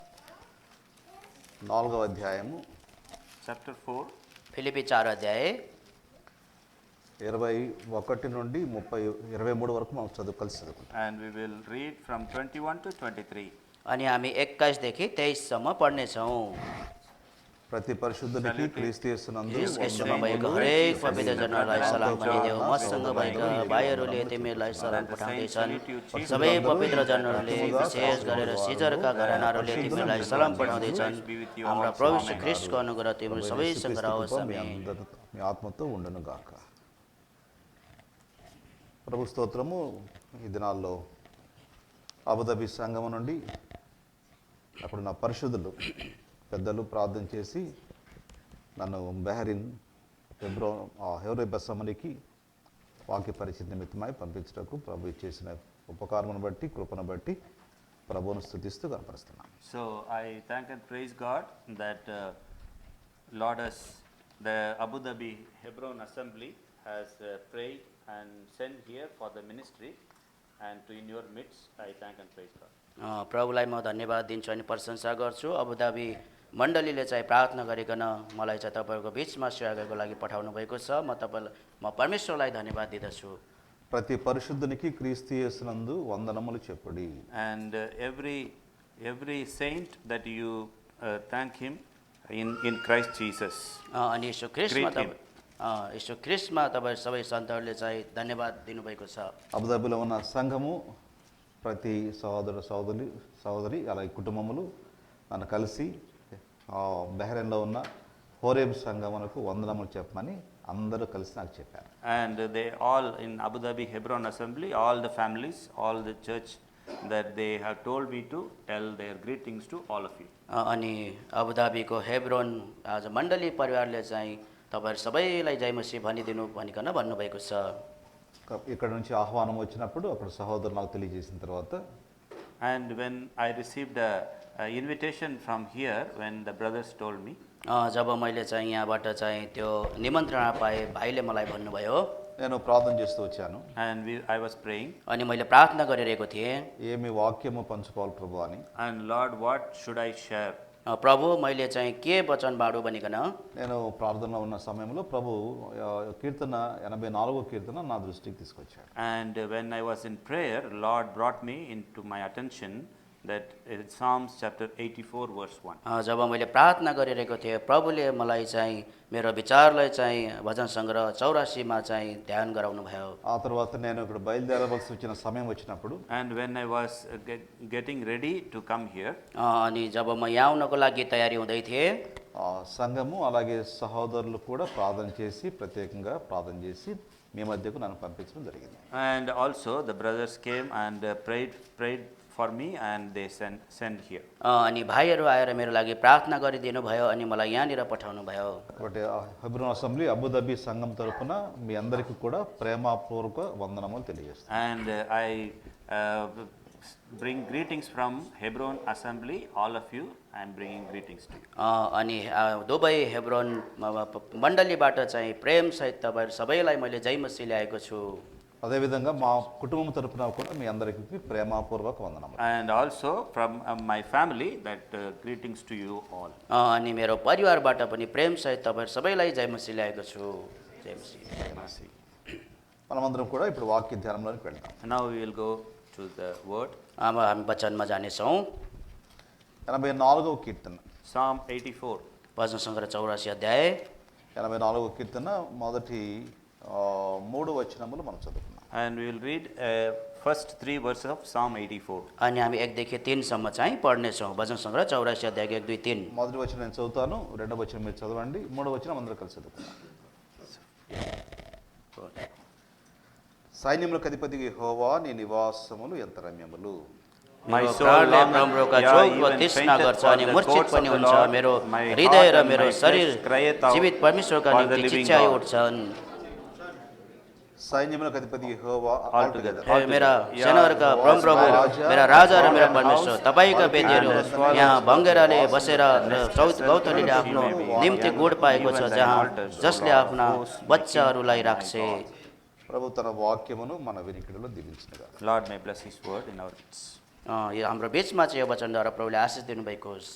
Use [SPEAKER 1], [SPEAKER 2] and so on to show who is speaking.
[SPEAKER 1] నాలుగవ అధ్యాయము
[SPEAKER 2] chapter 4,
[SPEAKER 3] ఫిలిపి చారు అధ్యాయ
[SPEAKER 1] ఇరవై ఒకటి నుండి ముప్పై ఇరవై మూడు వరకు మనం చదువు కలిసి చదువుకుంటాం
[SPEAKER 2] and we will read from 21 to 23.
[SPEAKER 3] अनि हामी एक्काइसदेखि तेइससम्म पढ्नेछौँ
[SPEAKER 1] ప్రతి పరిశుద్ధునికి క్రీస్తునందు
[SPEAKER 3] यसमा भएको हरेक पवित्रजनहरूलाई सलाम भनिदेऊ मसँग भएका भाइहरूले तिमीहरूलाई सलाम पठाउँदैछन् सबै पवित्रजनहरूले विशेष गरेर सिजरका घरानाहरूले तिमीलाई सलाम पठाउँदैछन् हाम्रा प्रभु श्री ख्रिस्टको अनुग्रह तिम्रो सबैसँग रहोस्
[SPEAKER 1] మీ
[SPEAKER 3] आमेन।
[SPEAKER 1] అందరితో మీ ఆత్మతో ఉండను గాక ప్రభు స్తోత్రము ఈ దినాల్లో అబుదాబి సంఘం నుండి అక్కడ నా పరిశుద్ధులు పెద్దలు ప్రార్థన చేసి నన్ను బెహరిన్ హెబ్రో ఆ హెబ్రో బెస్సమనికి వాక్య పరిచయ నిమిత్తమై పంపించటకు ప్రభు చేసిన ఉపకారమును బట్టి కృపను బట్టి ప్రభువును స్థుతిస్తూ కనపరుస్తున్నాను
[SPEAKER 2] So I thank and praise God that uh, Lord has, the Abu Dhabi Hebron Assembly has uh, prayed and sent here for the ministry and to in your midst, I thank and praise God.
[SPEAKER 3] अ, प्रभुलाई म धन्यवाद दिन्छु अनि प्रशंसा गर्छु Abu Dhabi मण्डलीले चाहिँ प्रार्थना गरिकन मलाई चाहिँ तपाईँहरूको बिचमा सेवाको लागि पठाउनु भएको छ म तपाईँलाई म परमेश्वरलाई धन्यवाद दिँदछु
[SPEAKER 1] ప్రతి పరిశుద్ధునికి క్రీస్తు యేసునందు వందనములు చెప్పుడి
[SPEAKER 2] And uh, every, every saint that you uh, thank him in, in Christ Jesus.
[SPEAKER 3] अ, अनि यसो क्रिस्टमा
[SPEAKER 2] Greet him.
[SPEAKER 3] तपाईँ यसो क्रिस्टमा तपाईँ सबै सन्तहरूले चाहिँ धन्यवाद दिनुभएको छ
[SPEAKER 1] అబుదాబిలో ఉన్న సంఘము ప్రతి సహోదరు సోదరి సహోదరి అలాగే కుటుంబములు నన్ను కలిసి ఆ, బహ్రెన్లో ఉన్న హోరేబ్ సంఘమునకు వందనములు చెప్పమని అందరూ కలిసి నాకు చెప్పారు
[SPEAKER 2] And they all in Abu Dhabi Hebron Assembly, all the families, all the church, that they have told me to tell their greetings to all of you.
[SPEAKER 3] अ, अनि अबुधाबीको हेब्रोन आज मण्डली परिवारले चाहिँ तपाईँहरू सबैलाई जय मसी भनिदिनु भनिकन भन्नुभएको छ
[SPEAKER 1] క- ఇక్కడ నుంచి ఆహ్వానం వచ్చినప్పుడు అక్కడ సహోదరు నాకు తెలియజేసిన తర్వాత
[SPEAKER 2] And when I received a, a invitation from here, when the brothers told me,
[SPEAKER 3] अ, जब मैले चाहिँ यहाँबाट चाहिँ त्यो निमन्त्रणा पाएँ भाइले मलाई भन्नुभयो
[SPEAKER 1] నేను ప్రార్థన చేస్తూ వచ్చాను
[SPEAKER 2] and we, I was praying,
[SPEAKER 3] अनि मैले ప్రార్థना गरिरहेको थिएँ
[SPEAKER 1] ఏమి వాక్యము పంచుకోవాలి ప్రభు అని
[SPEAKER 2] and Lord, what should I share?
[SPEAKER 3] अ, प्रभु मैले चाहिँ के वचन बाँडु भनिकन
[SPEAKER 1] నేను ప్రార్థనలో ఉన్న సమయంలో ప్రభు ఆ, కీర్తన ఎనభై నాలుగో కీర్తన నా దృష్టికి తీసుకొచ్చాడు
[SPEAKER 2] And when I was in prayer, Lord brought me into my attention that in Psalms chapter 84, verse 1.
[SPEAKER 3] अ, जब मैले प्रार्थना गरिरहेको थिएँ प्रभुले मलाई चाहिँ मेरो విచారलाई चाहिँ भजन सङ्ग्रह चौरासीमा चाहिँ ध्यान गराउनु भयो
[SPEAKER 1] ఆ తర్వాత నేను ఇక్కడ బయలుదేరవలసి వచ్చిన సమయం వచ్చినప్పుడు
[SPEAKER 2] And when I was uh, get, getting ready to come here,
[SPEAKER 3] अ, अनि जब म यहाँ आउनको लागि तयारी हुँदै थिएँ
[SPEAKER 1] ఆ సంఘము అలాగే సహోదరులు కూడా ప్రార్థన చేసి ప్రత్యేకంగా ప్రార్థన చేసి మీ మధ్యకు నన్ను పంపించడం జరిగింది
[SPEAKER 2] and also the brothers came and uh, prayed, prayed for me, and they sent, sent here.
[SPEAKER 3] अ, अनि भाइहरू आएर मेरो लागि प्रार्थना गरिदिनु भयो अनि मलाई यहाँनिर पठाउनु भयो
[SPEAKER 1] కాబట్టి ఆ హెబ్రోన్ అసెంబ్లీ అబుదాబి సంఘం తరపున మీ అందరికీ కూడా ప్రేమపూర్వక వందనములు తెలియజేస్తాను
[SPEAKER 2] And uh, I uh, bring greetings from Hebron Assembly, all of you, I'm bringing greetings to you.
[SPEAKER 3] अ, अनि अ, दुबई हेब्रोन म- म- मण्डलीबाट चाहिँ प्रेमसहित तपाईँहरू सबैलाई मैले जयमसी ल्याएको छु
[SPEAKER 1] అదేవిధంగా మా కుటుంబం తరపున కూడా మీ అందరికీ ప్రేమపూర్వక వందనములు
[SPEAKER 2] And also from uh, my family, that uh, greetings to you all.
[SPEAKER 3] अ, अनि मेरो परिवारबाट पनि प्रेमसहित तपाईँहरू सबैलाई जयमसी ल्याएको छु जयमसी
[SPEAKER 1] మనమందరం కూడా ఇప్పుడు వాక్య ధ్యానంలోనికి వెళ్తాం
[SPEAKER 2] Now we will go to the word
[SPEAKER 3] अब हामी वचनमा जानेछौँ
[SPEAKER 1] ఎనభై నాలుగవ కీర్తన
[SPEAKER 2] Psalm 84.
[SPEAKER 3] भजन सङ्ग्रह चौरासी अध्याय
[SPEAKER 1] ఎనభై నాలుగవ కీర్తన మొదటి ఆ, మూడు వచనములు మనం చదువుకున్నాం
[SPEAKER 2] And we will read uh, first three verses of Psalm 84.
[SPEAKER 3] अनि हामी एकदेखि तिनसम्म चाहिँ पढ्नेछौँ भजन सङ्ग्रह चौरासी अध्याय एक दुई तिन
[SPEAKER 1] మొదటి వచనం నేను చదువుతాను రెండవ వచనం మీరు చదవండి మూడవ వచనం అందరూ కలిసి చదువుకున్నాం సైన్యములకు అధిపతి హోవా నీ నివాసములు ఎంత రమ్యములు
[SPEAKER 2] My
[SPEAKER 3] मेरो
[SPEAKER 2] soul
[SPEAKER 3] प्राणले
[SPEAKER 2] longeth-
[SPEAKER 3] प्रभुका
[SPEAKER 2] Yeah,
[SPEAKER 3] चोकको
[SPEAKER 2] even
[SPEAKER 3] तृष्णा
[SPEAKER 2] fainteth
[SPEAKER 3] गर्छ
[SPEAKER 2] for
[SPEAKER 3] अनि
[SPEAKER 2] the
[SPEAKER 3] मूर्छित
[SPEAKER 2] courts of
[SPEAKER 3] पनि
[SPEAKER 2] the
[SPEAKER 3] हुन्छ
[SPEAKER 2] Lord.
[SPEAKER 3] मेरो
[SPEAKER 2] My
[SPEAKER 3] हृदय
[SPEAKER 2] heart
[SPEAKER 3] र
[SPEAKER 2] and
[SPEAKER 3] मेरो
[SPEAKER 2] my flesh
[SPEAKER 3] शरीर
[SPEAKER 2] crieth out
[SPEAKER 3] जीवित परमेश्वरका
[SPEAKER 2] for the
[SPEAKER 3] निम्ति
[SPEAKER 2] living
[SPEAKER 3] चिच्याइ
[SPEAKER 2] God.
[SPEAKER 3] उठ्छन्
[SPEAKER 1] సైన్యములకు అధిపతి హోవా
[SPEAKER 2] Altogether.
[SPEAKER 3] ए, मेरा
[SPEAKER 2] Yeah,
[SPEAKER 3] सेनाहरूका
[SPEAKER 1] Lord,
[SPEAKER 3] परम प्रभु
[SPEAKER 1] my Raja,
[SPEAKER 3] मेरा राजा र
[SPEAKER 2] Lord
[SPEAKER 3] मेरा
[SPEAKER 2] and
[SPEAKER 3] परमेश्वर
[SPEAKER 2] house,
[SPEAKER 3] तपाईँका
[SPEAKER 1] all
[SPEAKER 3] बेदीहरू
[SPEAKER 2] and as well
[SPEAKER 3] यहाँ
[SPEAKER 2] as
[SPEAKER 3] बङ्गेराले
[SPEAKER 1] the
[SPEAKER 3] बसेर र चौत गौतलीले आफ्नो
[SPEAKER 1] Lord,
[SPEAKER 3] निम्ति
[SPEAKER 2] and
[SPEAKER 3] गोठ पाएको छ
[SPEAKER 2] even thy
[SPEAKER 3] जहाँ
[SPEAKER 2] altars, O
[SPEAKER 3] जसले
[SPEAKER 2] Lord,
[SPEAKER 3] आफ्ना
[SPEAKER 2] hosts, my
[SPEAKER 3] बच्चाहरूलाई
[SPEAKER 2] king, my
[SPEAKER 3] राख्छे
[SPEAKER 2] God.
[SPEAKER 1] ప్రభు తన వాక్యమును మన వినికిడిలో దిగించినగా
[SPEAKER 2] Lord may bless his word in our midst.
[SPEAKER 3] अँ, यो हाम्रो बिचमा चाहिँ यो वचनद्वारा प्रभुले आशिष दिनुभएको होस्